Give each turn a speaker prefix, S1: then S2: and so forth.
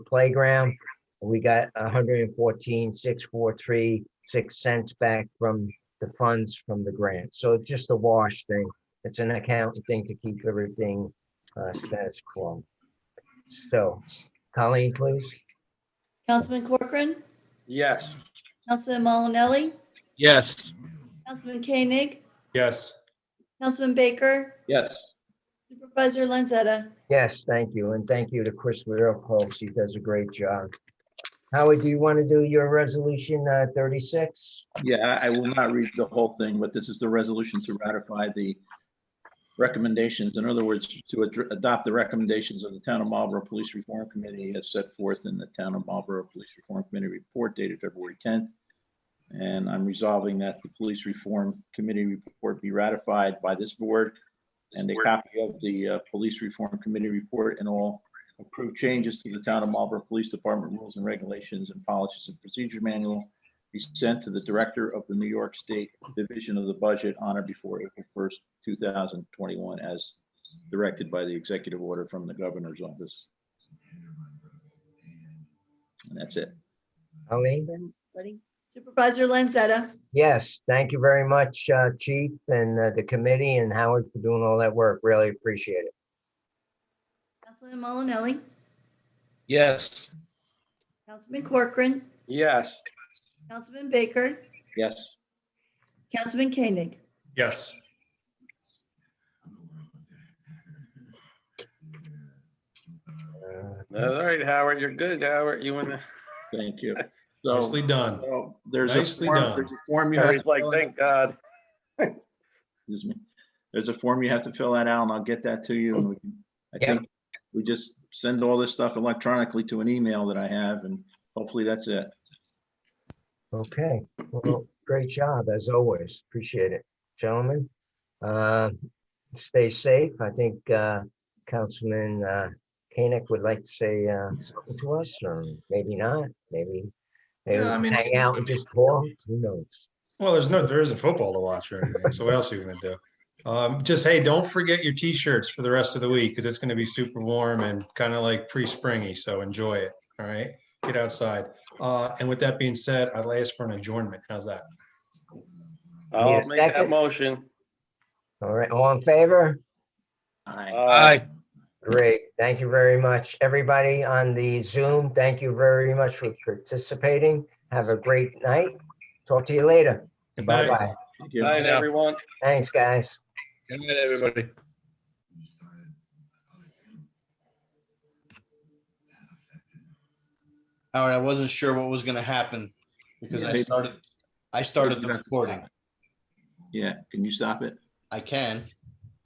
S1: playground. We got a hundred and fourteen, six, four, three, six cents back from the funds from the grant. So it's just a wash thing. It's an accounting thing to keep everything uh, status quo. So Colleen, please.
S2: Councilman Corcoran,
S3: Yes.
S2: Councilman Malinelli,
S4: Yes.
S2: Councilman Koenig,
S4: Yes.
S2: Councilman Baker,
S3: Yes.
S2: Supervisor Lanzetta.
S1: Yes, thank you. And thank you to Chris Leopold. He does a great job. Howard, do you want to do your resolution uh, 36?
S3: Yeah, I- I will not read the whole thing, but this is the resolution to ratify the recommendations. In other words, to adr- adopt the recommendations of the Town of Marlborough Police Reform Committee as set forth in the Town of Marlborough Police Reform Committee report dated February 10th. And I'm resolving that the Police Reform Committee report be ratified by this board and a copy of the uh, Police Reform Committee report and all approved changes to the Town of Marlborough Police Department rules and regulations and policies and procedure manual be sent to the Director of the New York State Division of the Budget on or before April 1st, 2021, as directed by the executive order from the Governor's Office. And that's it.
S1: Colleen?
S2: Supervisor Lanzetta,
S1: Yes, thank you very much, uh, Chief and uh, the committee and Howard for doing all that work. Really appreciate it.
S2: Councilman Malinelli,
S4: Yes.
S2: Councilman Corcoran,
S4: Yes.
S2: Councilman Baker,
S3: Yes,
S2: Councilman Koenig.
S4: Yes.
S1: Uh,
S5: All right, Howard, you're good, Howard. You and
S3: thank you. So
S4: Nicely done.
S3: so there's a
S4: Nicely
S3: form,
S4: done.
S3: there's a form you have.
S5: Harry's
S3: to
S5: like,
S3: fill out.
S5: thank God.
S3: Excuse me. There's a form you have to fill that out, and I'll get that to you. And we can, I
S1: Yeah.
S3: think we just send all this stuff electronically to an email that I have, and hopefully that's it.
S1: Okay, well, great job as always. Appreciate it, gentlemen. Uh, Stay safe. I think uh, Councilman uh, Koenig would like to say uh, something to us, or maybe not, maybe. maybe
S4: Yeah, I
S1: we'll
S4: mean-
S1: Hang out and just talk, who knows?
S4: Well, there's no, there isn't football to watch or anything. So what else are you gonna do? Um, just, hey, don't forget your t-shirts for the rest of the week because it's gonna be super warm and kind of like pre-springy. So enjoy it. All right. Get outside. Uh, and with that being said, I'd ask for an adjournment. How's that?
S1: Yeah,
S5: I'll make that
S1: second.
S5: motion.
S1: All right, all in favor?
S3: Aye.
S5: Uh,
S1: Great. Thank you very much. Everybody on the Zoom, thank you very much for participating. Have a great night. Talk to you later.
S4: Good night.
S1: Bye-bye.
S3: Thank
S5: Good
S3: you.
S5: Night,
S6: Yeah.
S5: everyone.
S1: Thanks, guys.
S6: Good night, everybody.
S7: Howard, I wasn't sure what was gonna happen because I
S3: Yeah.
S7: started, I started the recording.
S3: Yeah, can you stop it?
S7: I can.